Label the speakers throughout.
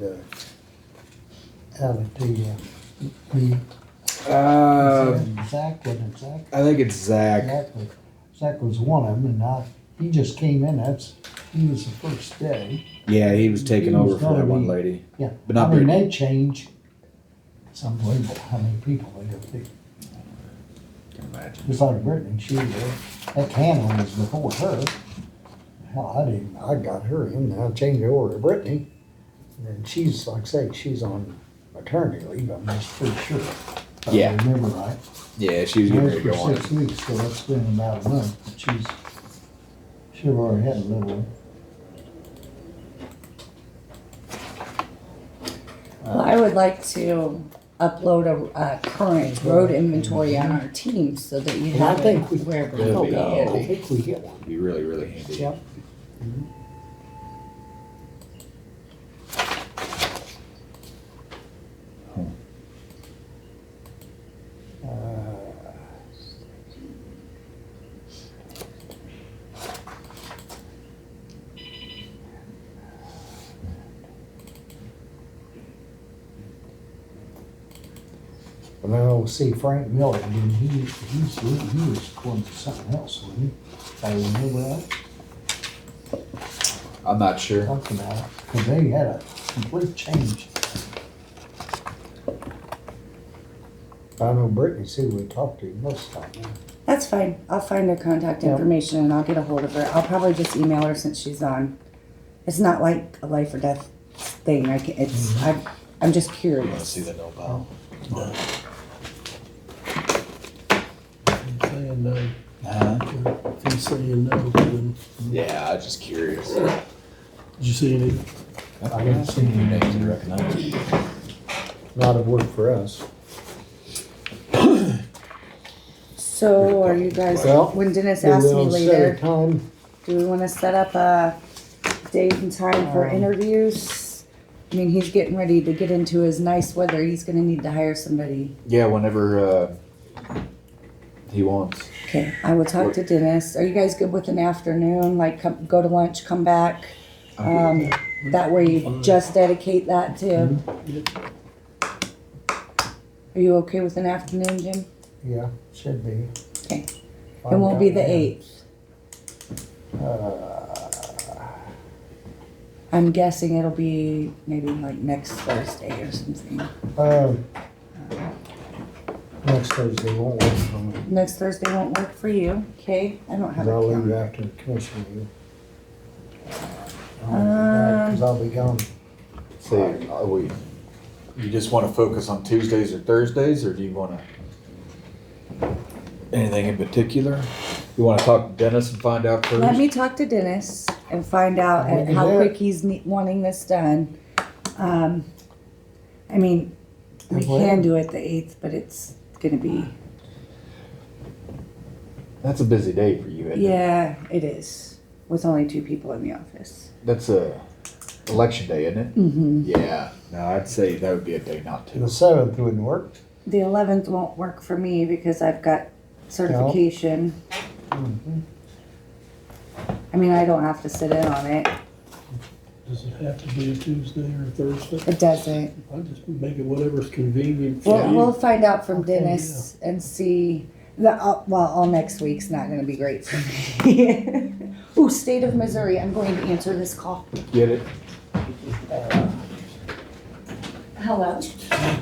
Speaker 1: Yeah.
Speaker 2: Alley to you. Me,
Speaker 1: Uh,
Speaker 2: Zach, wasn't it Zach?
Speaker 1: I think it's Zach.
Speaker 2: Zach was, Zach was one of them, and I, he just came in, that's, he was the first day.
Speaker 1: Yeah, he was taking
Speaker 2: He was
Speaker 1: over for that
Speaker 2: gonna
Speaker 1: one
Speaker 2: be-
Speaker 1: lady.
Speaker 2: Yeah,
Speaker 1: But
Speaker 2: I
Speaker 1: not
Speaker 2: mean,
Speaker 1: very-
Speaker 2: they change, it's unbelievable how many people they have picked.
Speaker 1: Can imagine.
Speaker 2: Just like Brittany, she was, that Hannah was before her. Hell, I didn't, I got her in, and I changed her over to Brittany. And she's, like I say, she's on maternity leave, I'm just pretty sure. if I
Speaker 1: Yeah.
Speaker 2: Remember right.
Speaker 1: Yeah, she was getting ready
Speaker 2: Married
Speaker 1: to go on
Speaker 2: for
Speaker 1: it.
Speaker 2: six weeks, so that's been about a month, but she's, she've already had a little one.
Speaker 3: Well, I would like to upload a, a current road inventory on our team so that you
Speaker 2: And I
Speaker 3: have
Speaker 2: think
Speaker 3: it
Speaker 2: we-
Speaker 3: wherever
Speaker 1: That'd
Speaker 3: you
Speaker 1: be
Speaker 3: go.
Speaker 2: I think we get one.
Speaker 1: It'd be really, really handy.
Speaker 2: Yep. Uh, And then we'll see Frank Miller, I mean, he, he's, he was going to something else, wasn't he? I remember that,
Speaker 1: I'm not sure.
Speaker 2: talking about it, because they had a complete change. I know Brittany's who we talked to most of the time.
Speaker 3: That's fine. I'll find her contact
Speaker 2: Yeah.
Speaker 3: information and I'll get a hold of her. I'll probably just email her since she's on. It's not like a life or death thing. I can, it's,
Speaker 2: Mm-hmm.
Speaker 3: I'm, I'm just curious.
Speaker 1: the no bow?
Speaker 4: I'm saying no,
Speaker 1: Huh?
Speaker 4: I'm saying no, then,
Speaker 1: Uh-huh. Yeah, I was just curious.
Speaker 4: did you see any?
Speaker 1: I haven't seen your names and recognize you.
Speaker 2: Not a word for us.
Speaker 3: So are you guys,
Speaker 2: Well,
Speaker 3: when Dennis asked me later,
Speaker 2: Time,
Speaker 3: do we wanna set up a date and time for
Speaker 2: Um,
Speaker 3: interviews? I mean, he's getting ready to get into his nice weather. He's gonna need to hire somebody.
Speaker 1: Yeah, whenever uh, he wants.
Speaker 3: Okay, I will talk to Dennis. Are you guys good with an afternoon, like come, go to lunch, come back?
Speaker 1: I'm
Speaker 3: Um, that way you just dedicate that to. Are you okay with an afternoon, Jim?
Speaker 2: yeah, should be.
Speaker 3: Okay. It won't be the eighth.
Speaker 2: Uh,
Speaker 3: I'm guessing it'll be maybe like next Thursday or something.
Speaker 2: Uh, next Thursday won't work for me,
Speaker 3: Next Thursday won't work for you, okay? I don't have
Speaker 2: because
Speaker 3: a
Speaker 2: I'll leave
Speaker 3: calendar.
Speaker 2: after the commission meeting.
Speaker 3: Uh,
Speaker 2: Because I'll be gone.
Speaker 1: See, are we, you just want to focus on Tuesdays or Thursdays, or do you want to? Anything in particular? You want to talk to Dennis and find out first?
Speaker 3: Let me talk to Dennis and find out
Speaker 2: We can
Speaker 3: how
Speaker 2: do
Speaker 3: quick
Speaker 2: it.
Speaker 3: he's ne- wanting this done. Um, I mean, we
Speaker 2: And when?
Speaker 3: can do it the eighth, but it's gonna be,
Speaker 1: That's a busy day for you, isn't it?
Speaker 3: yeah, it is, with only two people in the office.
Speaker 1: That's a election day, isn't it?
Speaker 3: Mm-hmm.
Speaker 1: Yeah. No, I'd say that would be a day not
Speaker 2: The
Speaker 1: to.
Speaker 2: seventh wouldn't work.
Speaker 3: The eleventh won't work for me because I've got certification. Mm-hmm.
Speaker 2: Mhm.
Speaker 3: I mean, I don't have to sit in on it.
Speaker 4: Does it have to be a Tuesday or a Thursday?
Speaker 3: It doesn't.
Speaker 4: I just make it whatever's convenient for
Speaker 3: We'll, we'll
Speaker 4: you.
Speaker 3: find out from
Speaker 4: Okay,
Speaker 3: Dennis and see. The, uh, well, all next week's not going to be great for me. Ooh, state of Missouri. I'm going to answer this call.
Speaker 1: Get it?
Speaker 3: Hello.
Speaker 1: I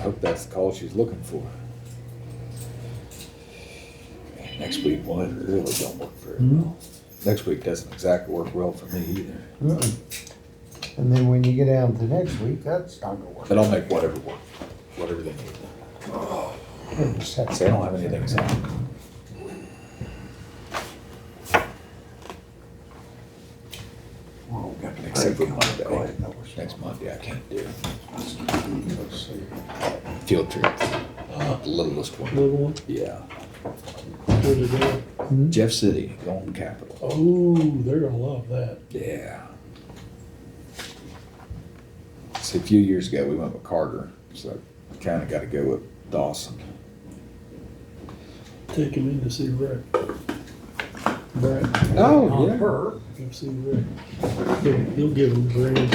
Speaker 1: hope that's the call she's looking for. Next week, well, it really don't work very well. Next week doesn't exactly work well for me either,
Speaker 2: Mm-mm. And then when you get down to next week, that's not gonna work.
Speaker 1: but I'll make whatever work, whatever they need.
Speaker 2: Goodness, that's-
Speaker 1: See, I don't have anything signed. Except for Monday. Next Monday I can't do. Field trip, uh, the littlest one.
Speaker 4: Little one,
Speaker 1: Yeah.
Speaker 4: where they go.
Speaker 1: Jeff City, Golden Capital.
Speaker 4: Oh, they're gonna love that.
Speaker 1: Yeah. See, a few years ago, we went with Carter, so kind of got to go with Dawson.
Speaker 4: Take them in to see Rick. Brett,
Speaker 5: Oh,
Speaker 2: on
Speaker 5: yeah.
Speaker 2: her. Oh,
Speaker 4: come see Rick. He'll- He'll give him a grand.